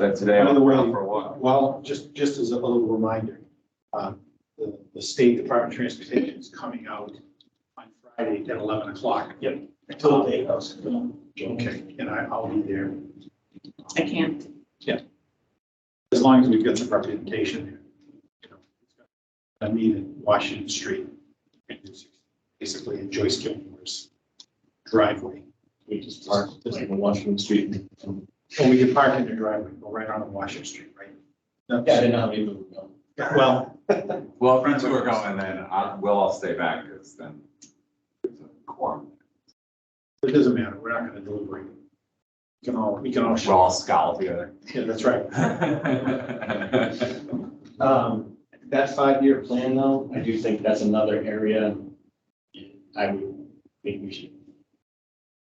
that today. By the way, For a while. well, just, just as a little reminder, um, the, the State Department of Transportation is coming out on Friday at eleven o'clock. Yep. Until the day goes. Okay, and I, I'll be there, I can't. as long as we get the representation there. you know. I mean, in Washington Street, and it's basically in Joyce Gilmore's driveway. We just park, just in Washington Street. Well, we can park in the driveway, go right on to Washington Street, right? Yeah, I did not leave them. no. Well, Well, if friends who are going, then I, we'll all stay back, because then it's a quorum. it doesn't matter, we're not gonna deliberate. We can all, we can all We'll show, all scowl together. yeah, that's right. Um, that five-year plan though, I do think that's another area I would think we should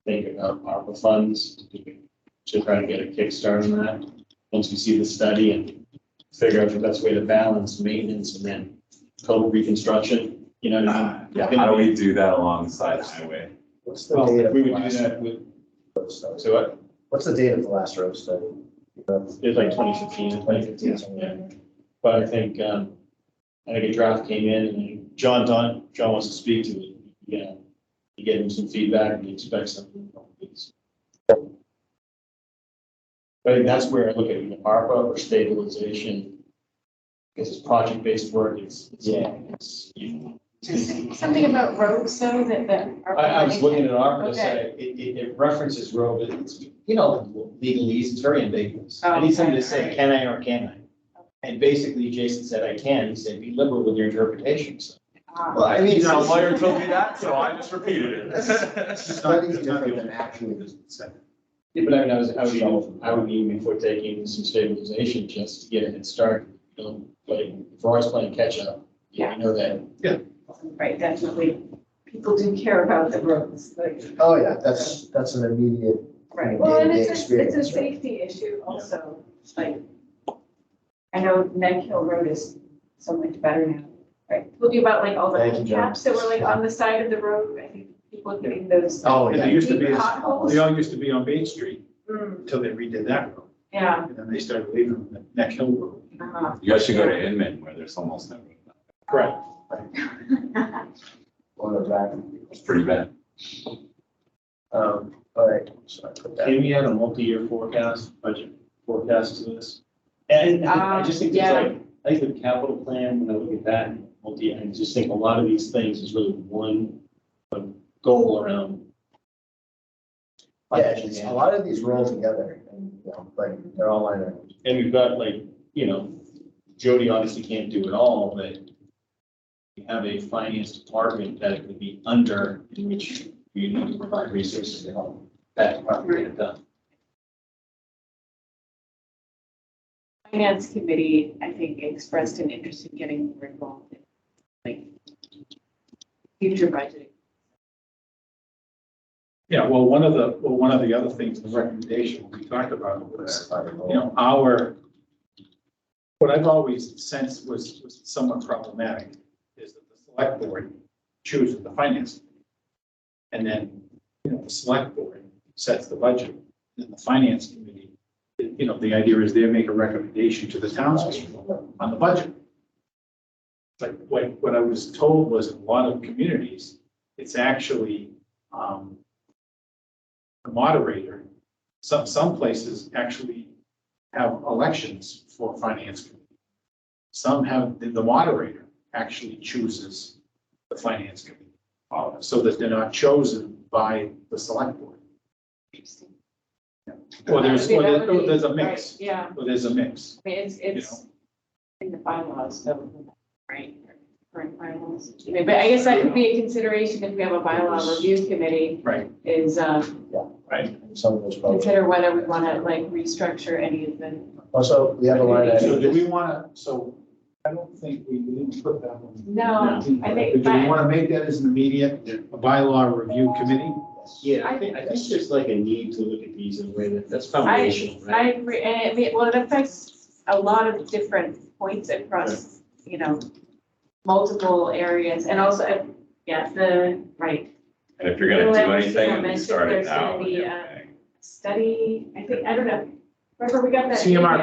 think about ARPA funds to try to get a kickstart on that. Once we see the study and figure out the best way to balance maintenance and then total reconstruction, you know what I mean? Yeah, how do we do that alongside highway? What's the Well, date if of we the would do last, that with, so uh, what, what's the date of the last road study? it was like twenty fifteen, twenty fifteen, something like that. But I think, um, I think a draft came in and John Don, John wants to speak to it. Yeah, he gave him some feedback and he expects something. from these. But I think that's where I look at either ARPA or stabilization. Because it's project-based work, it's, it's, it's, you know, Something about roads though, that, that. are- I, I was looking at ARPA to say, it, it, it references road, but it's, you know, legalese, it's very ambiguous. Oh, I need somebody okay, to say, alright. can I or can I? And basically Jason said, I can, he said, be liberal with your interpretations. Ah. Well, I mean, You it's- know, lawyer told me that, so I just repeated it. Study's different than actually the study. Yeah, but I mean, I was, I would, even- I would even before taking some stabilization just to get it started, you know, like, if we're always playing catch up, you Yeah. know that. Right, definitely. People do care about the roads, like. Oh, yeah, that's, that's an immediate. Right, Right. well, and it's a, Experience, it's a right. safety issue also, like, I know Neck Hill Road is so much better now, right? Told you about like all Thank the you, John. caps that were like on the side of the road, I think people are getting those. Oh, And they used to be, Deep they potholes. all used to be on Main Street Mm, until they redid that road. Yeah, And then they started leaving the Neck Hill Road. uh-huh. You guys should go to Inman where there's almost no, road. Correct. Or the back. it's pretty bad. Um, all right, so I put that. Can we add a multi-year forecast, budget forecast to this? And I just think there's Um, yeah. like, I think the capital plan, when I look at that, multi, I just think a lot of these things is really one, one goal around. Yeah, it's- a lot of these roll together and, you know, like, they're all line items. And we've got like, you know, Jody obviously can't do it all, but we have a finance department that it would be under, in which you need to provide resources to help that department get it done. Finance committee, I think, expressed an interest in getting more involved in, like, future budgeting. Yeah, well, one of the, well, one of the other things, the recommendation we talked about was, you know, our, what I've always sensed was was somewhat problematic is that the select board chooses the finance. committee. And then, you know, the select board sets the budget, and the finance committee, you know, the idea is they make a recommendation to the townspeople on the budget. Like, what, what I was told was in a lot of communities, it's actually, um, the moderator, some, some places actually have elections for finance committee. Some have, the the moderator actually chooses the finance committee, uh, so that they're not chosen by the select board. Interesting. Or there's, That would or be- that there's, would or be- there's a right, mix, Yeah. or there's a mix. I mean, it's, it's in the bylaws, so, right, current bylaws. I mean, But I guess that could be a consideration if we have a bylaw review committee, Right. is, um, Some of those probably. consider whether we want to like restructure any of the. Also, we have a line So do item. we want to, so I don't think we didn't put that one. No, I think, Do we but want to make that as an immediate bylaw review committee? Yeah, I think- I think there's like a need to look at these in a way that, that's foundational, I agree, and it, may- well, it affects a lot of different points across, you know, multiple areas, and also, uh, yeah, the, right, And if you're gonna do Well, anything, you mentioned start it there's gonna now. and be, you're uh, paying. study, I think, I don't know. Remember, we got that. CMR